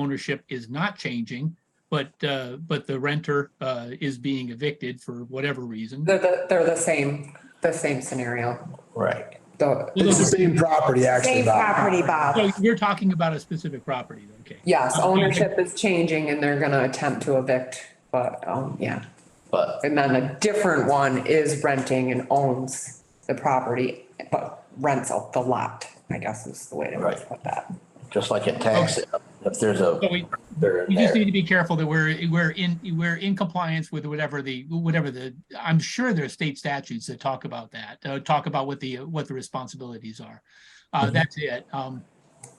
ownership is not changing, but, uh, but the renter, uh, is being evicted for whatever reason. They're the, they're the same, the same scenario. Right. The, It's the same property, actually. Same Bob. property, Bob. So you're talking about a specific property, okay? yes, ownership is changing and they're gonna attempt to evict, but, um, yeah. But, and then a different one is renting and owns the property, but rents out the lot, I guess is the way to Right. put that. Just like in tax, if there's a, So we, they're in we just need there. to be careful that we're, we're in, we're in compliance with whatever the, whatever the, I'm sure there are state statutes that talk about that, uh, talk about what the, what the responsibilities are. Uh, that's it. Um,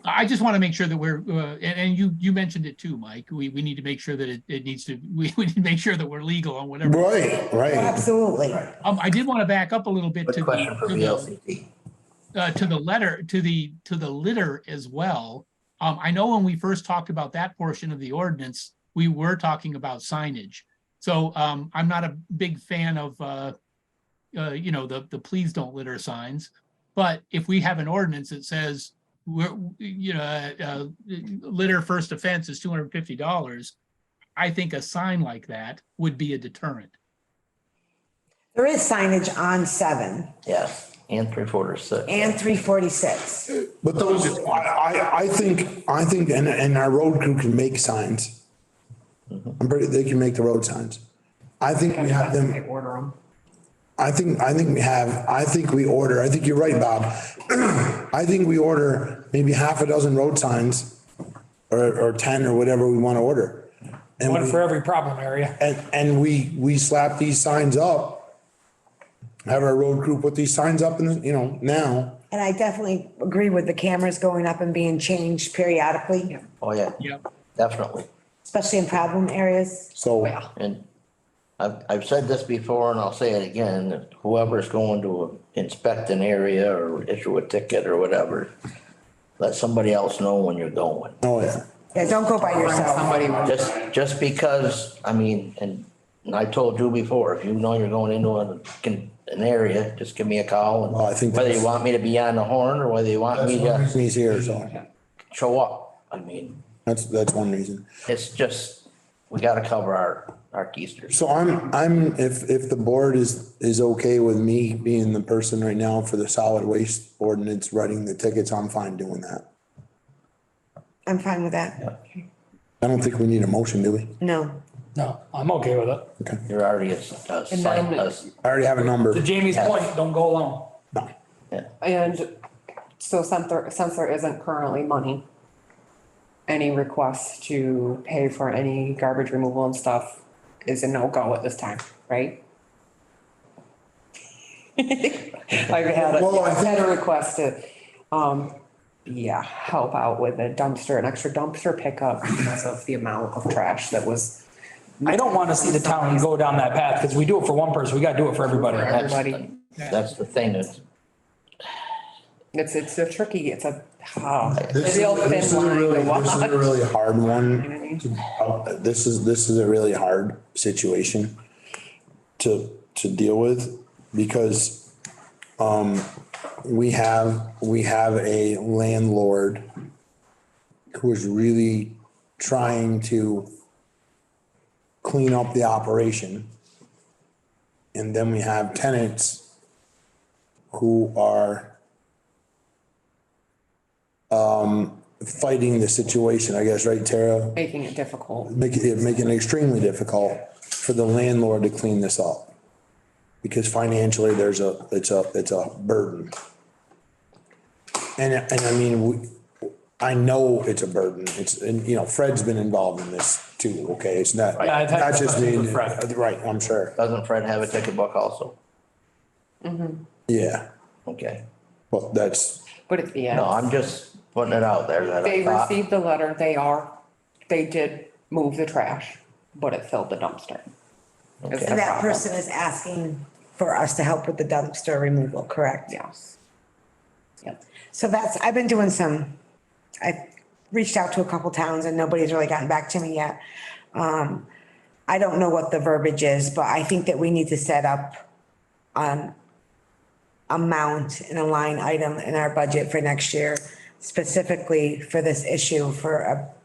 I just want to make sure that we're, uh, and, and you, you mentioned it too, Mike. We, we need to make sure that it, it needs to, we, we need to make sure that we're legal on whatever. Right, right. Absolutely. Um, I did want to back up a little bit to Good the- question for to the- VLCT. uh, to the letter, to the, to the litter as well. Um, I know when we first talked about that portion of the ordinance, we were talking about signage. So, um, I'm not a big fan of, uh, uh, you know, the, the please don't litter signs. But if we have an ordinance that says, we're, you know, uh, litter first offense is two hundred and fifty dollars, I think a sign like that would be a deterrent. There is signage on seven Yes, and three quarters six. and three forty-six. But those, I, I, I think, I think, and, and our road crew can make signs. I'm pretty, they can make the road signs. I think we have They them, order them. I think, I think we have, I think we order, I think you're right, Bob. I think we order maybe half a dozen road signs or, or 10 or whatever we want to order. And One we- for every problem area. And, and we, we slap these signs up. Have our road crew put these signs up and, you know, now, And I definitely agree with the cameras going up and being changed periodically, Oh, yeah, Yep. definitely. especially in problem areas. so. And I've, I've said this before and I'll say it again, that whoever's going to inspect an area or issue a ticket or whatever, let somebody else know when you're going. Oh, yeah. Yeah, don't go by yourself. Somebody was Just, just because, I mean, and and I told you before, if you know you're going into an, can- an area, just give me a call. and Well, I think Whether you that's- want me to be on the horn or whether you want me That's to one reason He's here, so show up. I mean, that's, that's one reason. it's just, we gotta cover our, our keisters. So I'm, I'm, if, if the board is, is okay with me being the person right now for the solid waste ordinance, writing the tickets, I'm fine doing that. I'm fine with that. I don't think we need a motion, do we? No. No, I'm okay with it. Okay. You're already a, a sign, a- I already have a number. To Jamie's point, don't go alone. No. yeah. And so since there, since there isn't currently money, any request to pay for any garbage removal and stuff is a no-go at this time, right? I've had, a- Well, I I've had a request to, um, yeah, help out with a dumpster, an extra dumpster pickup because of the amount of trash that was I don't want to see the town go down that path because we do it for one person. We got to do it for everybody. for That's- everybody. That's the thing, that's, It's, it's a tricky, it's a, oh. This a is, real this is thin a line to really, this is walk. a really hard You know what I one. mean? Uh, This is, this is a really hard situation to, to deal with because, um, we have, we have a landlord who is really trying to clean up the operation. And then we have tenants who are um, fighting the situation, I guess, right, Tara? Making it difficult. Make it, making it extremely difficult for the landlord to clean this up. Because financially, there's a, it's a, it's a burden. And, and I mean, we, I know it's a burden. It's, and, you know, Fred's been involved in this too, okay? It's not, Yeah, I've had not just me. discussions with Fred. Right, I'm sure. doesn't Fred have a ticket book also? Yeah, Okay. well, that's, But at the end. No, I'm just putting it out there that I They thought, received the letter, they are, they did move the trash, but it filled the dumpster. Is Okay. the And that problem. person is asking for us to help with the dumpster removal, correct? Yes. Yep. So that's, I've been doing some, I reached out to a couple towns and nobody's really gotten back to me yet. Um, I don't know what the verbiage is, but I think that we need to set up um amount and a line item in our budget for next year specifically for this issue for a